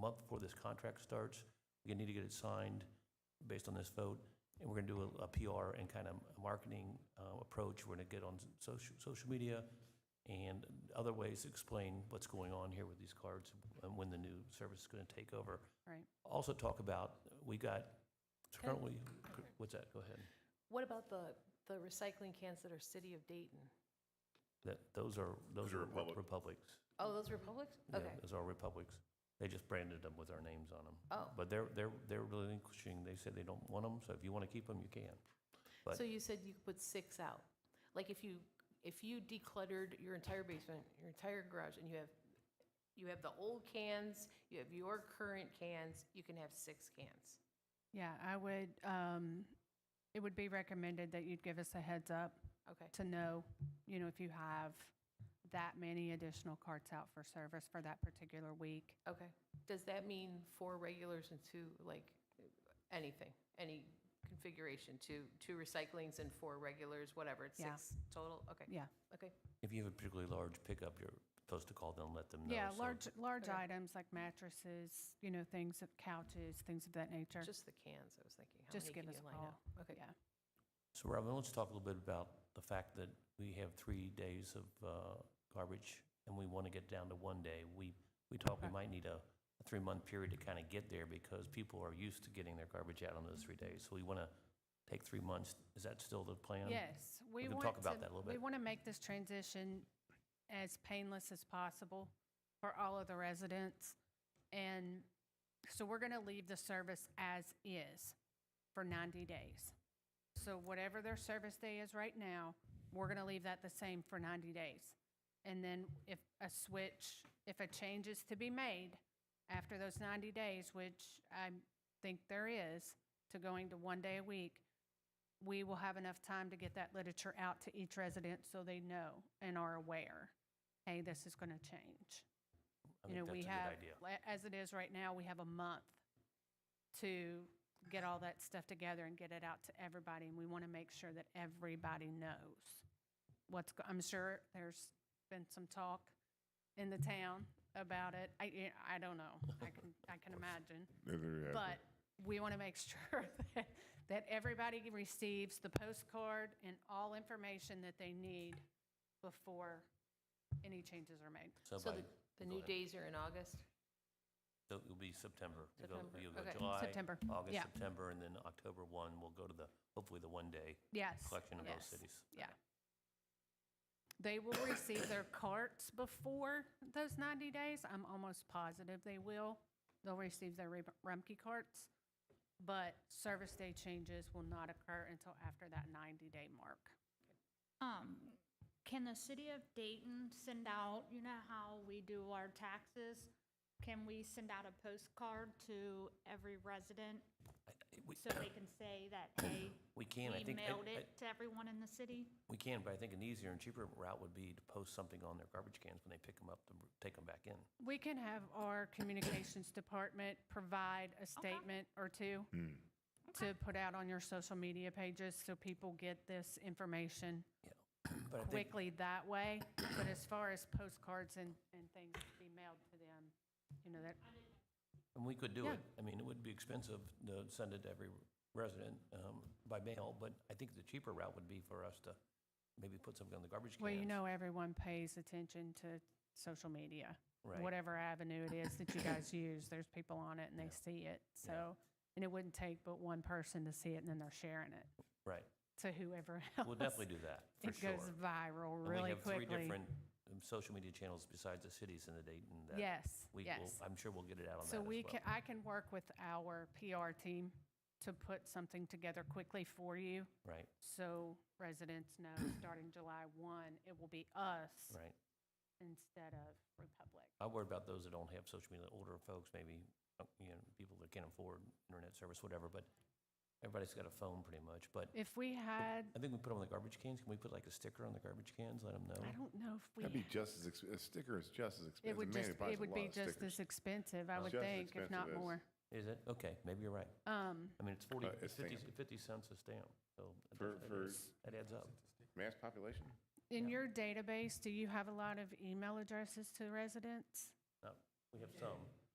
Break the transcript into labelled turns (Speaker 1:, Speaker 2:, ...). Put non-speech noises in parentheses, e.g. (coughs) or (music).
Speaker 1: month before this contract starts. We need to get it signed based on this vote, and we're going to do a- a PR and kind of a marketing uh, approach. We're going to get on social, social media and other ways to explain what's going on here with these cards and when the new service is going to take over.
Speaker 2: Right.
Speaker 1: Also talk about, we got it's
Speaker 2: Can I-
Speaker 1: currently, what's that? Go ahead.
Speaker 2: What about the, the recycling cans that are City of Dayton?
Speaker 1: That, those are, those
Speaker 3: Those are
Speaker 1: are
Speaker 3: Republic.
Speaker 1: Republics.
Speaker 2: Oh, those Republics?
Speaker 1: Yeah,
Speaker 2: Okay.
Speaker 1: Those are Republics. They just branded them with our names on them.
Speaker 2: Oh.
Speaker 1: But they're, they're, they're relinquishing, they said they don't want them, so if you want to keep them, you can. but-
Speaker 2: So you said you could put six out. Like if you, if you decluttered your entire basement, your entire garage, and you have, you have the old cans, you have your current cans, you can have six cans.
Speaker 4: Yeah, I would, um, it would be recommended that you'd give us a heads up
Speaker 2: Okay.
Speaker 4: to know, you know, if you have that many additional carts out for service for that particular week.
Speaker 2: Okay. Does that mean four regulars and two, like, anything, any configuration, two, two recyclings and four regulars, whatever, it's
Speaker 4: Yeah.
Speaker 2: six total? Okay.
Speaker 4: Yeah.
Speaker 2: Okay.
Speaker 1: If you have a particularly large pickup, you're supposed to call them, and let them know.
Speaker 4: Yeah,
Speaker 1: so-
Speaker 4: large, large
Speaker 2: Okay.
Speaker 4: items like mattresses, you know, things, of couches, things of that nature.
Speaker 2: Just the cans, I was thinking. how
Speaker 4: Just
Speaker 2: many
Speaker 4: give
Speaker 2: can
Speaker 4: us a
Speaker 2: you line
Speaker 4: call.
Speaker 2: up? Okay.
Speaker 4: Yeah.
Speaker 1: So Robin, let's talk a little bit about the fact that we have three days of uh, garbage and we want to get down to one day. We, we talk, we
Speaker 4: Okay.
Speaker 1: might need a a three-month period to kind of get there because people are used to getting their garbage out on those three days. So we want to take three months. Is that still the plan?
Speaker 4: Yes, we
Speaker 1: can
Speaker 4: want
Speaker 1: talk about
Speaker 4: to-
Speaker 1: that a little
Speaker 4: We
Speaker 1: bit.
Speaker 4: want to make this transition as painless as possible for all of the residents. And so we're going to leave the service as is for 90 days. So whatever their service day is right now, we're going to leave that the same for 90 days. And then if a switch, if a change is to be made after those 90 days, which I think there is, to going to one day a week, we will have enough time to get that literature out to each resident so they know and are aware, hey, this is going to change.
Speaker 1: I
Speaker 4: You
Speaker 1: think
Speaker 4: know, we
Speaker 1: that's a good
Speaker 4: have,
Speaker 1: idea.
Speaker 4: le- as it is right now, we have a month to get all that stuff together and get it out to everybody. And we want to make sure that everybody knows what's, go- I'm sure there's been some talk in the town about it. I, yeah, I don't know.
Speaker 1: (laughs)
Speaker 4: I can, I can imagine.
Speaker 3: Neither, uh,
Speaker 4: But we want to make (laughs) sure that, that everybody receives the postcard and all information that they need before any changes are made.
Speaker 1: So
Speaker 2: So
Speaker 1: by-
Speaker 2: the, the
Speaker 1: go
Speaker 2: new
Speaker 1: ahead.
Speaker 2: days are in August?
Speaker 1: So it'll be September. You'll go-
Speaker 2: September,
Speaker 1: You'll go
Speaker 2: okay.
Speaker 1: July.
Speaker 4: September,
Speaker 1: August,
Speaker 4: yeah.
Speaker 1: September, and then October 1, we'll go to the, hopefully the one-day
Speaker 4: Yes.
Speaker 1: collection of those
Speaker 4: yes,
Speaker 1: cities.
Speaker 4: Yeah. They will receive their carts before those 90 days. I'm almost positive they will. They'll receive their Reb- Rumpke carts. But service day changes will not occur until after that 90-day mark.
Speaker 5: Um, can the city of Dayton send out, you know how we do our taxes? Can we send out a postcard to every resident
Speaker 1: We-
Speaker 5: so they can say
Speaker 1: (clears throat)
Speaker 5: that, hey,
Speaker 1: We
Speaker 5: we
Speaker 1: can, I think. I-
Speaker 5: mailed
Speaker 1: I-
Speaker 5: it to everyone in the city?
Speaker 1: We can, but I think an easier and cheaper route would be to post something on their garbage cans when they pick them up to take them back in.
Speaker 4: We can have our communications department provide a statement or two
Speaker 1: Hmm.
Speaker 4: to put out on your social media pages so people get this information
Speaker 1: But I think,
Speaker 4: quickly that way. But as far as postcards and, and things to be mailed to them, you know, that,
Speaker 1: and we could do
Speaker 4: Yeah.
Speaker 1: it. I mean, it would be expensive to send it to every resident um, by mail, but I think the cheaper route would be for us to maybe put something on the garbage cans.
Speaker 4: well, you know, everyone pays attention to social media.
Speaker 1: Right.
Speaker 4: Whatever avenue it is that
Speaker 1: (coughs)
Speaker 4: you guys use, there's people on it and
Speaker 1: Yeah.
Speaker 4: they see it. So, and it wouldn't take but one person to see it and then they're sharing it
Speaker 1: Right.
Speaker 4: to whoever else.
Speaker 1: We'll definitely do that, for
Speaker 4: It
Speaker 1: sure.
Speaker 4: goes viral
Speaker 1: And
Speaker 4: really quickly.
Speaker 1: we have three different um, social media channels besides the cities in the Dayton that
Speaker 4: Yes,
Speaker 1: we will,
Speaker 4: yes.
Speaker 1: I'm sure we'll get it out on that
Speaker 4: So
Speaker 1: as
Speaker 4: we
Speaker 1: well.
Speaker 4: can, I can work with our PR team to put something together quickly for you.
Speaker 1: Right,
Speaker 4: So residents
Speaker 1: (coughs)
Speaker 4: know, starting July 1, it will be us
Speaker 1: right.
Speaker 4: instead of Republic.
Speaker 1: I worry about those that don't have social media, older folks, maybe, uh, you know, people that can't afford internet service, whatever, but everybody's got a phone pretty much, but
Speaker 4: If we had,
Speaker 1: I think we put them on the garbage cans. Can we put like a sticker on the garbage cans, let them know?
Speaker 4: I don't know if we,
Speaker 3: That'd be just as, ex- a sticker is just as expensive.
Speaker 4: it would
Speaker 3: Man,
Speaker 4: just,
Speaker 3: buys
Speaker 4: it
Speaker 3: a
Speaker 4: would
Speaker 3: lot
Speaker 4: be
Speaker 3: of
Speaker 4: just
Speaker 3: stickers.
Speaker 4: as expensive, I would
Speaker 3: Just as
Speaker 4: think, if
Speaker 3: expensive
Speaker 4: not
Speaker 3: as-
Speaker 4: more.
Speaker 1: Is it? Okay, maybe you're right.
Speaker 4: Um,
Speaker 1: I mean, it's 40,
Speaker 3: Uh, it's
Speaker 1: 50
Speaker 3: stamp.
Speaker 1: 50 cents a stamp, so that
Speaker 3: For-
Speaker 1: does- that
Speaker 3: for-
Speaker 1: adds- that adds up.
Speaker 3: Mass population?
Speaker 4: In your database, do you have a lot of email addresses to residents?
Speaker 1: We have some.